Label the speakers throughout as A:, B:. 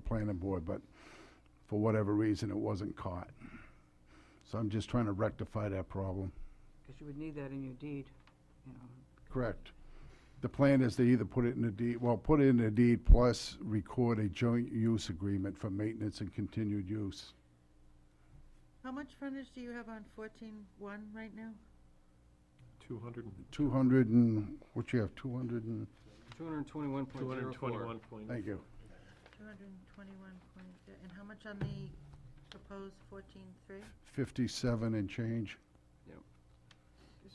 A: planning board, but for whatever reason, it wasn't caught. So I'm just trying to rectify that problem.
B: Because you would need that in your deed, you know.
A: Correct. The plan is to either put it in a deed, well, put it in a deed plus record a joint use agreement for maintenance and continued use.
C: How much frontage do you have on fourteen one right now?
D: Two hundred and,
A: Two hundred and, what you have, two hundred and,
E: Two hundred and twenty-one point
D: two hundred
E: zero
D: and
E: four.
D: twenty-one point.
A: thank you.
C: Two hundred and twenty-one point, and how much on the proposed fourteen three?
A: Fifty-seven and change.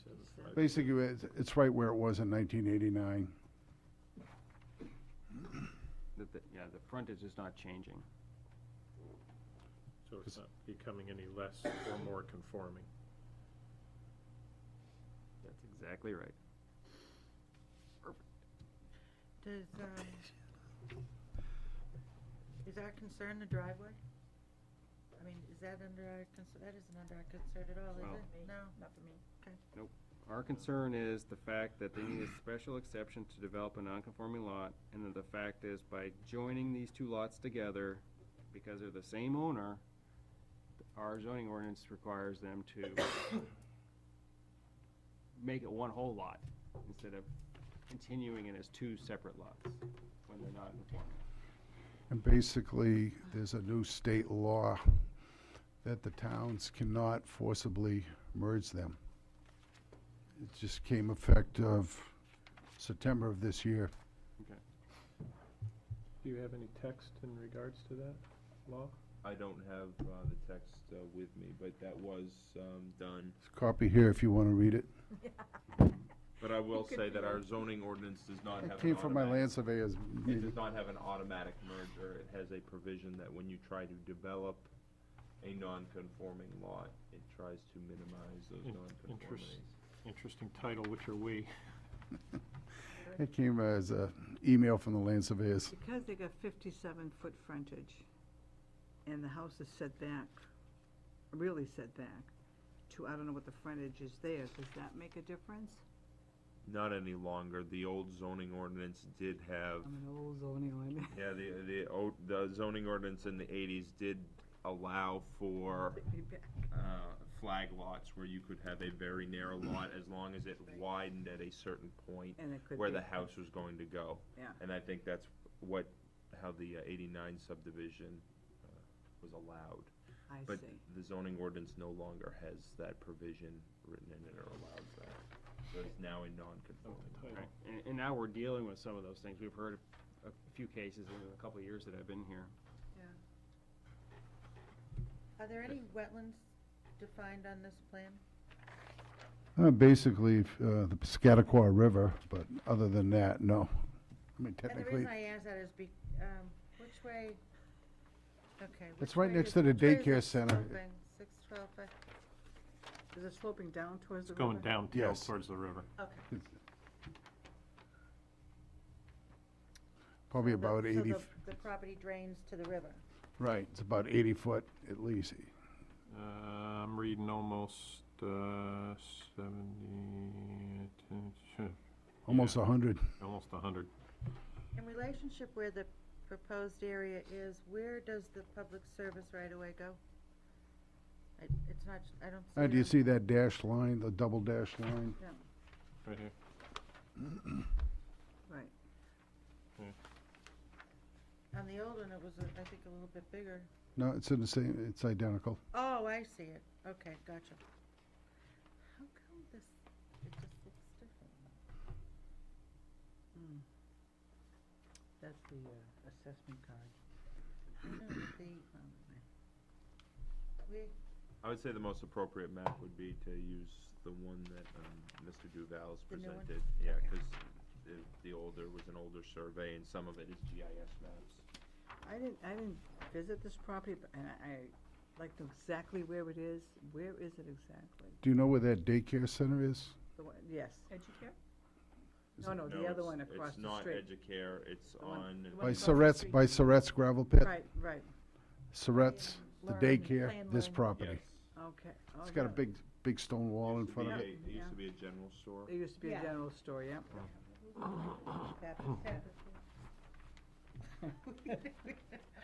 D: seven five.
A: Basically, it's, it's right where it was in nineteen eighty-nine.
E: Yeah, the frontage is not changing.
D: So it's not becoming any less or more conforming.
E: That's exactly right.
C: Does, um, is our concern the driveway? I mean, is that under our, cons- that isn't under our concern at all,
E: Well-
C: is it? No,
F: Not for me.
E: Our concern is the fact that they need a special exception to develop a non-conforming lot, and that the fact is by joining these two lots together, because they're the same owner, our zoning ordinance requires them to make it one whole lot, instead of continuing it as two separate lots, when they're not conforming.
A: And basically, there's a new state law that the towns cannot forcibly merge them. It just came effect of September of this year.
D: Do you have any text in regards to that law?
G: I don't have uh, the text uh, with me, but that was um, done.
A: There's a copy here if you want to read it.
G: But I will say that our zoning ordinance does not have.
A: It
G: an
A: came from my
G: automatic-
A: land surveyors
G: It
A: meeting.
G: does not have an automatic merger. It has a provision that when you try to develop a non-conforming lot, it tries to minimize those
D: In-
G: non-conformities.
D: Interesting title, which are we?
A: It came as a email from the land surveyors.
B: Because they got fifty-seven foot frontage, and the house is set back, really set back, to, I don't know what the frontage is there, does that make a difference?
G: Not any longer. The old zoning ordinance did have,
B: I'm an old zoning ordinance.
G: yeah, the, the, o- the zoning ordinance in the eighties did allow for uh, flag lots where you could have a very narrow lot as long as it widened at a certain point
B: And it could
G: where
B: be-
G: the house was going to go.
B: Yeah.
G: And I think that's what, how the uh, eighty-nine subdivision uh, was allowed.
B: I
G: But
B: see.
G: the zoning ordinance no longer has that provision written in it or allows that. So it's now a non-conforming.
E: Right, and, and now we're dealing with some of those things. We've heard a a few cases in a couple of years that I've been here.
C: Are there any wetlands defined on this plan?
A: Uh, Basically, uh, the Piscataqua River, but other than that, no. I mean,
C: And the
A: technically,
C: reason I ask that is be, um, which way, okay.
A: It's
C: which
A: right
C: way
A: next
C: is-
A: to the
C: which way is
A: daycare
C: it
A: center.
C: sloping? Six twelve, uh,
B: Is it sloping down towards the
D: It's
B: river?
D: going downhill
A: Yes.
D: towards the river.
C: okay.
A: probably
C: The-
A: about
C: so
A: eighty,
C: the-
A: f-
C: The property drains to the river.
A: right, it's about eighty foot at least.
D: Uh, I'm reading almost, uh, seventy,
A: Almost
D: Yeah.
A: a hundred.
D: almost a hundred.
C: In relationship where the proposed area is, where does the public service right-of-way go? I- It's not, I don't see.
A: Uh,
C: it
A: do you
C: on-
A: see that dashed line, the double dashed line?
D: Right here.
B: Right.
C: On the old one, it was, uh, I think, a little bit bigger.
A: No, it's in the same, it's identical.
C: Oh, I see it. Okay, gotcha. How come this, it just looks different?
B: That's the uh, assessment card.
C: No, the- uh, we-
G: I would say the most appropriate map would be to use the one that um, Mr. Duval's
C: The new one?
G: presented. Yeah,
C: Okay.
G: because the, the older, was an older survey and some of it is GIS maps.
B: I didn't, I didn't visit this property, but, and I, I like to exactly where it is. Where is it exactly?
A: Do you know where that daycare center is?
B: The one, yes.
F: Educare?
B: No, no, the other one across the street.
G: It's not Educare, it's
B: The one-
G: on,
B: the one
A: By
B: across the
A: Surratt's,
B: street.
A: by Surratt's gravel pit?
B: Right, right.
A: Surratt's, the
F: Learn,
A: daycare,
F: plan
A: this
F: learn.
A: property.
G: yes.
B: Okay. Oh,
A: It's got a
B: yeah.
A: big, big stone wall in
G: Used to
A: front of
G: be
A: it.
G: a- It
B: Yeah.
G: used to be a general store.
B: It used to be a
F: Yeah.
B: general store, yeah.
C: Baptist, Baptist.